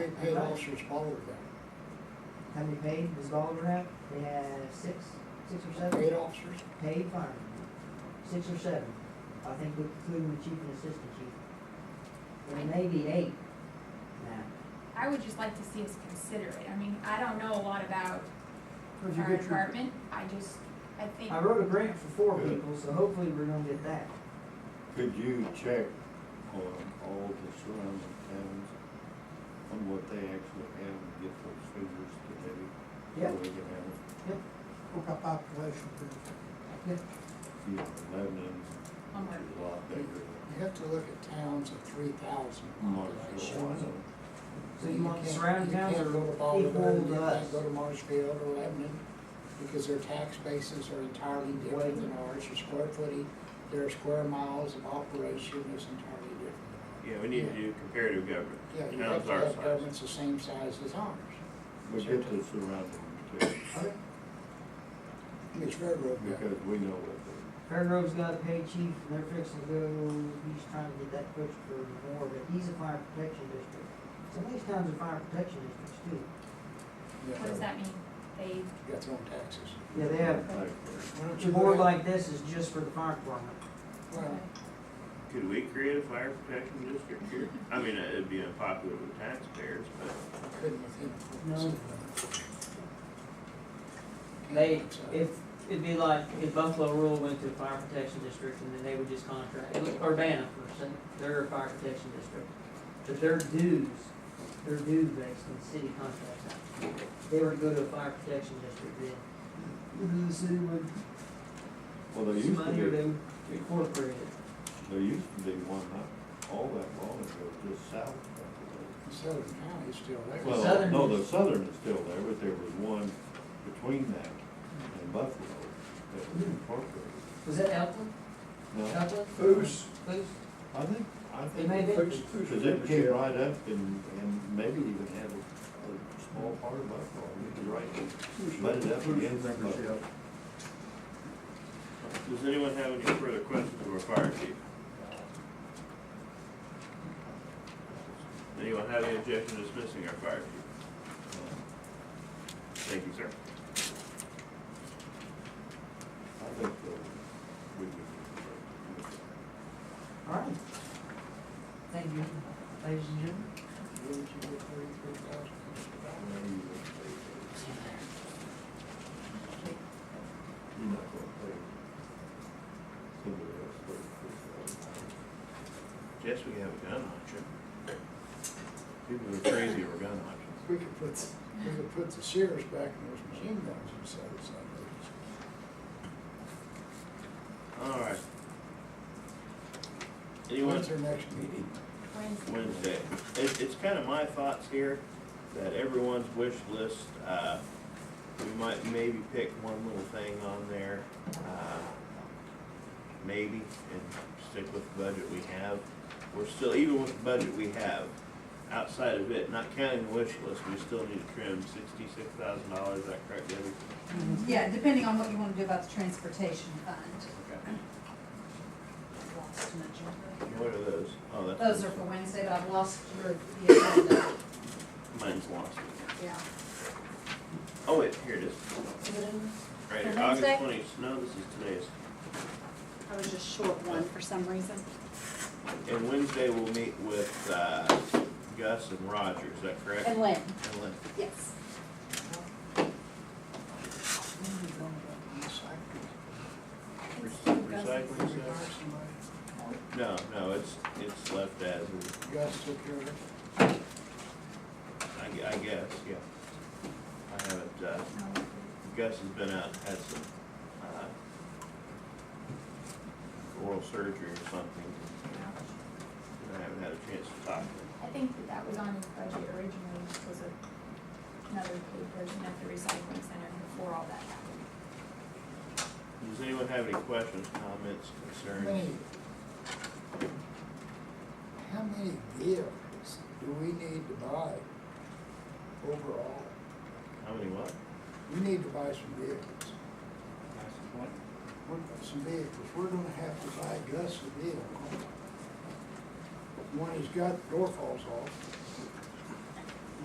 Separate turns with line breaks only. we paid officers all of them,
How many paid does Baldwin have? They have six, six or seven?
paid officers,
Paid firemen, six or seven, I think we including the chief and assistant chief. There may be eight now.
I would just like to see us consider it. I mean, I don't know a lot about
Where'd you
our
get your-
department. I just, I think,
I wrote a grant for four people, so hopefully we're gonna get that.
Could you check on all the surrounding towns on what they actually have and get those figures today?
Yeah.
So we can have,
What about population growth?
you know, Lebanon,
Oh,
which is a lot bigger than
you have to look at towns of three thousand
Oh,
Marshall.
population.
So you want
can't-
surrounding towns
You can't go to
are
Baltimore,
equal
you
to
can't
us?
go to Marshfield or Lebanon, because their tax bases are entirely different than ours, their square footing, their square miles of operation is entirely different.
Yeah, we need to do comparative government.
Yeah, you
Towns
have to
our
have
size.
governments the same size as ours.
We get the surrounding towns
It's railroad.
because we know what they,
Fairgrove's got a paid chief, and they're fixing to go, he's trying to get that pushed for more, but he's a fire protection district. Some of these towns are fire protection districts too.
what does that mean? They,
Got their own taxes.
Yeah, they have,
like,
Why don't
a
you
board
go ahead-
like this is just for the fire department.
uh,
well,
Could we create a fire protection district here? I mean, it'd be unpopular with taxpayers, but
I couldn't with him.
No. They, if, it'd be like if Buffalo Rule went to a fire protection district and then they would just contract, Urbana for instance, they're a fire protection district. But their dues, their dues based on city contracts. If They were to go to a fire protection district then. then The city would,
well, there
some
used to
money or
be,
they would incorporate it.
there used to be one not all that long ago, just south of that.
Southern County's still there.
Well,
Southern
no,
is-
the southern is still there, but there was one between that and Buffalo that
Hmm.
was incorporated.
Was that Elkland?
No,
Elkland?
Foos.
Foos?
I think, I
It may
think,
be.
because it came right up and, and maybe even had a, a small part of Buffalo, we could write it, butt it up against Buffalo.
does anyone have any further questions of our fire chief? Anyone have any objection to dismissing our fire chief? Thank you, sir.
I think that we could.
All right. Thank you, ladies and gentlemen.
Wouldn't you get thirty-three thousand?
You're not gonna pay somebody else thirty-three thousand.
Yes, we have a gun option. People are crazy over gun options.
We could put, we could put the Sears back in those machine guns and sell it someplace.
All right. Anyone?
When's their next meeting?
Wednesday.
Wednesday. It, it's kind of my thoughts here, that everyone's wish list, uh, we might maybe pick one little thing on there, uh, maybe, and stick with the budget we have. We're still, even with the budget we have, outside of it, not counting the wish list, we still need to trim sixty-six thousand dollars, is that correct, Debbie?
Yeah, depending on what you wanna do about the transportation fund.
Okay.
I've lost my agenda.
What are those? Oh, that's.
Those are for Wednesday, but I've lost your, the agenda,
Mine's lost.
yeah.
Oh, wait, here it is.
Is it in-
Right
For
here, August
Wednesday?
twenty, no, this is today's.
I was just short one for some reason.
And Wednesday we'll meet with, uh, Gus and Roger, is that correct?
And Lynn,
And Lynn.
yes.
When are you going to recycle? We
Recycling
hire
stuff?
somebody?
No, no, it's, it's left as, is.
You guys took care of it?
I, gue- I guess, yeah. I haven't, uh, Gus has been out, had some, uh, oral surgery or something, and I haven't had a chance to talk to him.
I think that that was on his budget originally, which was a- another paid version of the recycling center before all that happened.
Does anyone have any questions, comments,
How
concerns?
many, how many vehicles do we need to buy overall?
How many what?
We need to buy some vehicles. We're, some vehicles, we're gonna have to buy Gus a vehicle. One he's got door falls off,